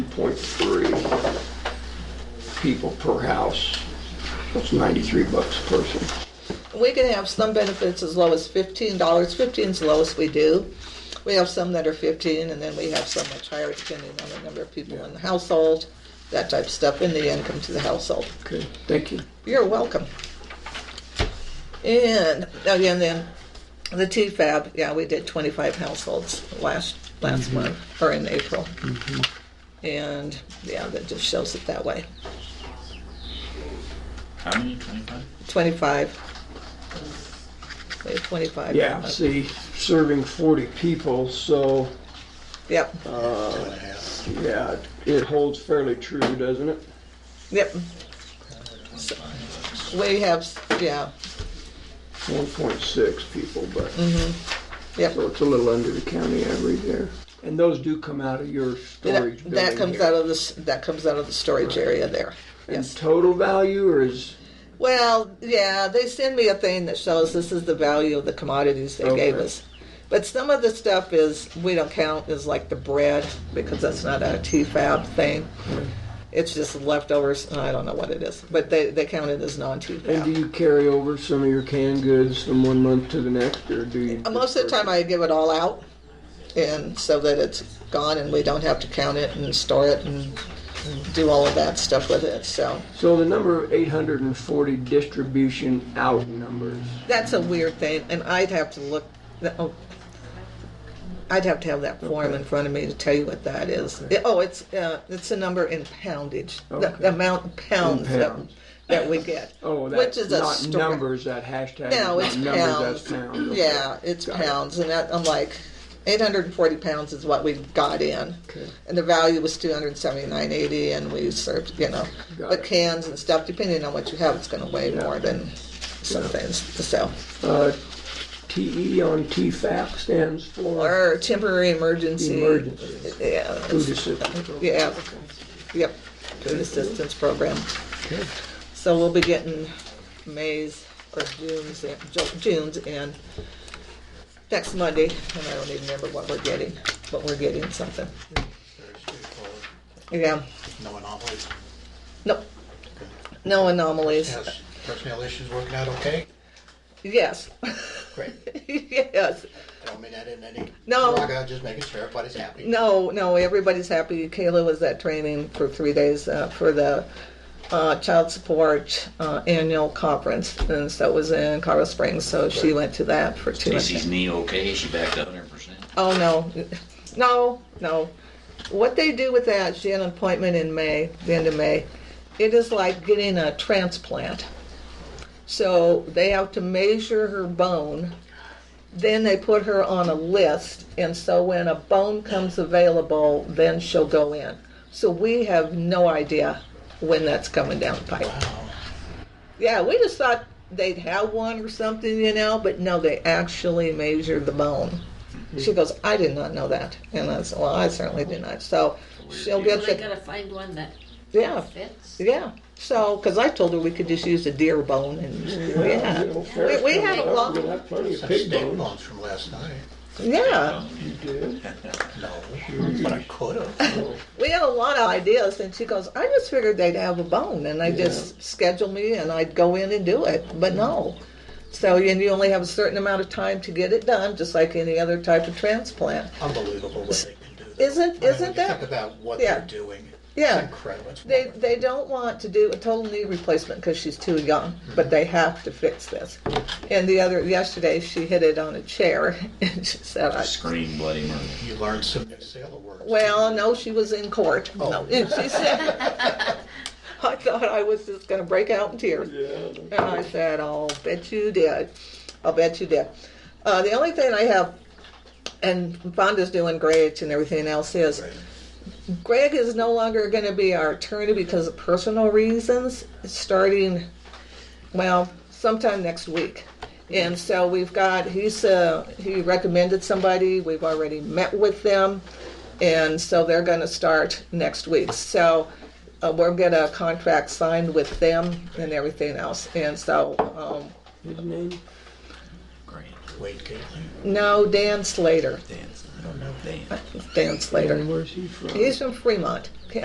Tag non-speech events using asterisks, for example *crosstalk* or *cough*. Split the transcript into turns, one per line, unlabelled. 1.3 people per house. That's 93 bucks a person.
We can have some benefits as low as fifteen dollars. Fifteen's the lowest we do. We have some that are fifteen, and then we have some much higher depending on the number of people in the household, that type of stuff, and the income to the household.
Okay, thank you.
You're welcome. And again, then the TFAB. Yeah, we did twenty-five households last last month or in April, and yeah, that just shows it that way.
How many? Twenty-five.
Twenty-five. We have twenty-five.
Yeah, see, serving 40 people, so,
Yep.
yeah, it holds fairly true, doesn't it?
Yep. So, We have, yeah,
1.6 people, but,
Mm-hmm. yep.
so it's a little under the county average there. And those do come out of your storage
That,
building
that comes
here.
out of the, s- that comes out of the storage area there.
And
Yes.
total value, or is,
Well, yeah, they send me a thing that shows this is the value of the commodities they gave
Okay.
us. But some of the stuff is, we don't count as like the bread because that's not a T-FAB thing.
Mm-hmm.
It's just leftovers, and I don't know what it is, but they, they count it as
and do
non-T-FAB.
you carry over some of your canned goods from one month to the next, or do you?
Most of the time, I give it all out, and so that it's gone, and we don't have to count it and store it and do all of that stuff with it. So
So the number of 840 distribution out numbers.
that's a weird thing, and I'd have to look. Oh, I'd have to have that form in front of me to tell you what that is.
Okay.
Oh, it's uh, it's a number in poundage, the,
Okay.
the amount of pounds,
In pounds.
That, that we get.
Oh,
which
that's
is a
not
store-
numbers. That hashtag. is
No,
not
it's
numbers.
pounds.
That's pounds. okay.
Yeah, it's
Got it.
pounds, and that, I'm like, 840 pounds is what we got in,
Okay.
and the value was 279.80, and we served, you know,
Got
but
it.
cans and stuff. Depending on what you have, it's going to weigh
Yeah.
more than some
Yeah.
things. So,
Uh, TE on TFAP stands for
or temporary emergency.
emergency
Yeah.
food assistance.
Yeah. Yep. Food assistance program.
Okay.
So we'll be getting May's or June's, in- Ju- June's in next Monday, and I don't even remember what we're getting, but we're getting something.
Very straightforward.
Yeah,
No anomalies.
no, no anomalies.
Yes, personnel issues working out okay?
Yes, *laughs*
Great.
yes.
Don't mean that in any.
No.
Like, I'm just making sure everybody's happy.
No, no, everybody's happy. Kayla was at training for three days uh, for the uh, child support uh, annual conference, and so it was in Colorado Springs. So she went to that for two.
Stacy's knee okay? Is she back to hundred percent?
Oh no, no, no. What they do with that? She had an appointment in May, the end of May. It is like getting a transplant. So they have to measure her bone. Then they put her on a list, and so when a bone comes available, then she'll go in. So we have no idea when that's coming down the pipe.
Wow.
Yeah, we just thought they'd have one or something, you know, but no, they actually measure the bone.
Hmm.
She goes, I did not know that. And I said, Well, I certainly did not. So she'll
Well,
get
they
the,
gotta find one that
yeah,
fits.
yeah. So, because I told her we could just use a deer bone and,
Yeah,
yeah,
you know, Ferris
We- we
coming
had a
up,
lot-
We'll have plenty of
Some
pig
steak
bones.
bones from last night.
yeah.
You did.
No, but I could have.
We had a lot of ideas. And she goes, I just figured they'd have a bone. And I just schedule me and I'd go in and do it. But no. So, and you only have a certain amount of time to get it done, just like any other type of transplant.
Unbelievable what they can do. though.
Isn't-
I mean, when
isn't
you
that-
Think about what
Yeah.
they're doing.
Yeah.
It's incredible. It's
They,
wonderful.
they don't want to do a total knee replacement because she's too young, but they have to fix this. And the other yesterday, she hit it on a chair, *laughs* and she said, I,
Scream bloody murder!
You learn some new sailor words.
"Well, no, she was in court." No,
Oh.
and she said, *laughs* "I thought I was just going to break out in tears."
Yeah.
And I said, I'll bet you did. I'll bet you did. Uh, the only thing I have, and Fonda's doing great and everything else is, Greg is no longer going to be our attorney because of personal reasons, starting, well, sometime next week. And so we've got, he's, uh, he recommended somebody, we've already met with them, and so they're going to start next week. So uh, we'll get a contract signed with them and everything else. And so, um,
His name?
Grant,
Wait, Caitlin.
no, Dan Slater.
dance, dance.
Dan Slater.
And where's he from?
He's from Fremont.